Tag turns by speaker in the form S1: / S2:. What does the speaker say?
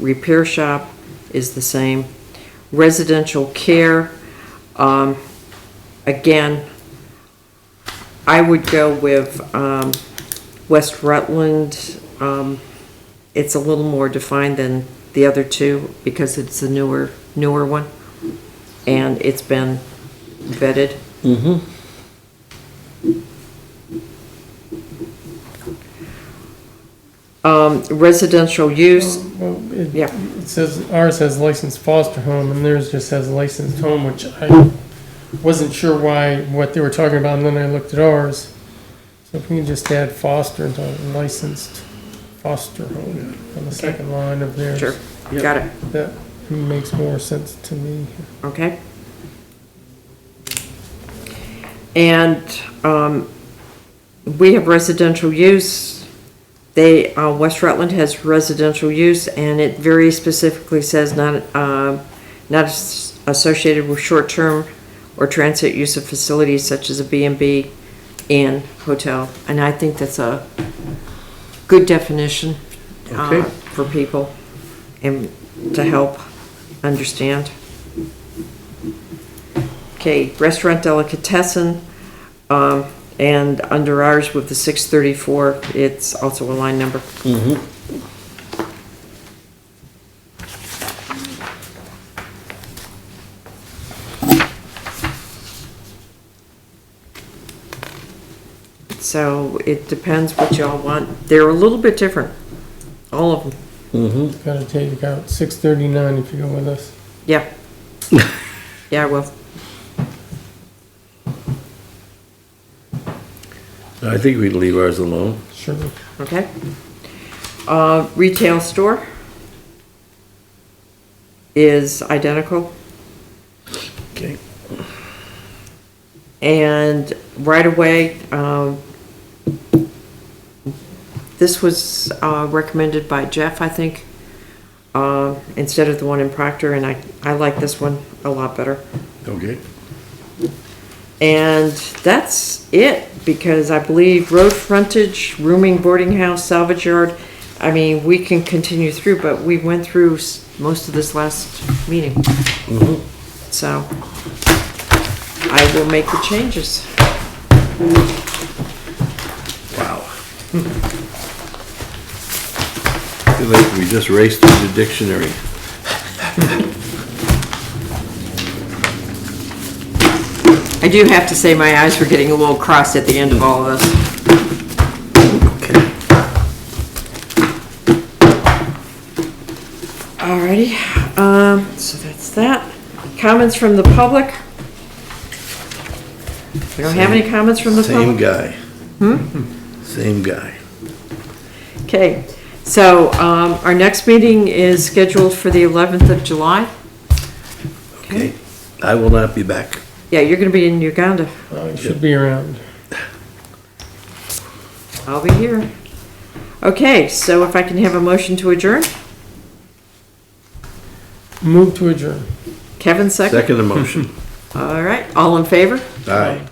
S1: repair shop is the same. Residential care, um, again, I would go with, um, West Rutland. Um, it's a little more defined than the other two because it's a newer, newer one. And it's been vetted. Um, residential use,
S2: Well, it,
S1: yeah.
S2: it says, ours says licensed foster home and theirs just says licensed home, which I wasn't sure why, what they were talking about, and then I looked at ours. So if we can just add foster into licensed foster home on the second line of theirs.
S1: Sure, got it,
S2: That makes more sense to me.
S1: okay. And, um, we have residential use. They, uh, West Rutland has residential use and it very specifically says not, uh, not as- associated with short-term or transit use of facilities such as a B and B and hotel. And I think that's a good definition, uh,
S3: Okay.
S1: for people and to help understand. Okay, restaurant delicatessen, um, and under ours with the six thirty-four, it's also a line number. So it depends what y'all want. They're a little bit different, all of them,
S2: Gotta take out six thirty-nine if you go with us.
S1: yeah. Yeah, well,
S3: I think we'd leave ours alone.
S2: Sure.
S1: okay. Uh, retail store is identical.
S3: Okay.
S1: And right away, um, this was, uh, recommended by Jeff, I think, uh, instead of the one in Proctor, and I, I like this one a lot better.
S3: Okay.
S1: And that's it, because I believe road frontage, rooming, boarding house, salvage yard, I mean, we can continue through, but we went through s- most of this last meeting. Mm-hmm. So, I will make the changes.
S3: Wow. Feel like we just raced through the dictionary.
S1: I do have to say, my eyes were getting a little crossed at the end of all of this.
S3: Okay.
S1: Alrighty, um, so that's that. Comments from the public? We don't have any comments from the Hmm?
S3: Same
S1: public?
S3: guy. Same guy.
S1: Okay, so, um, our next meeting is scheduled for the eleventh of July.
S3: Okay. I will not be back.
S1: Yeah, you're gonna be in Uganda.
S2: I Uh, should be around.
S1: I'll be here. Okay, so if I can have a motion to adjourn?
S2: Move to adjourn.
S1: Kevin second?
S3: Second emotion.
S1: All right, all in favor?
S3: Aye.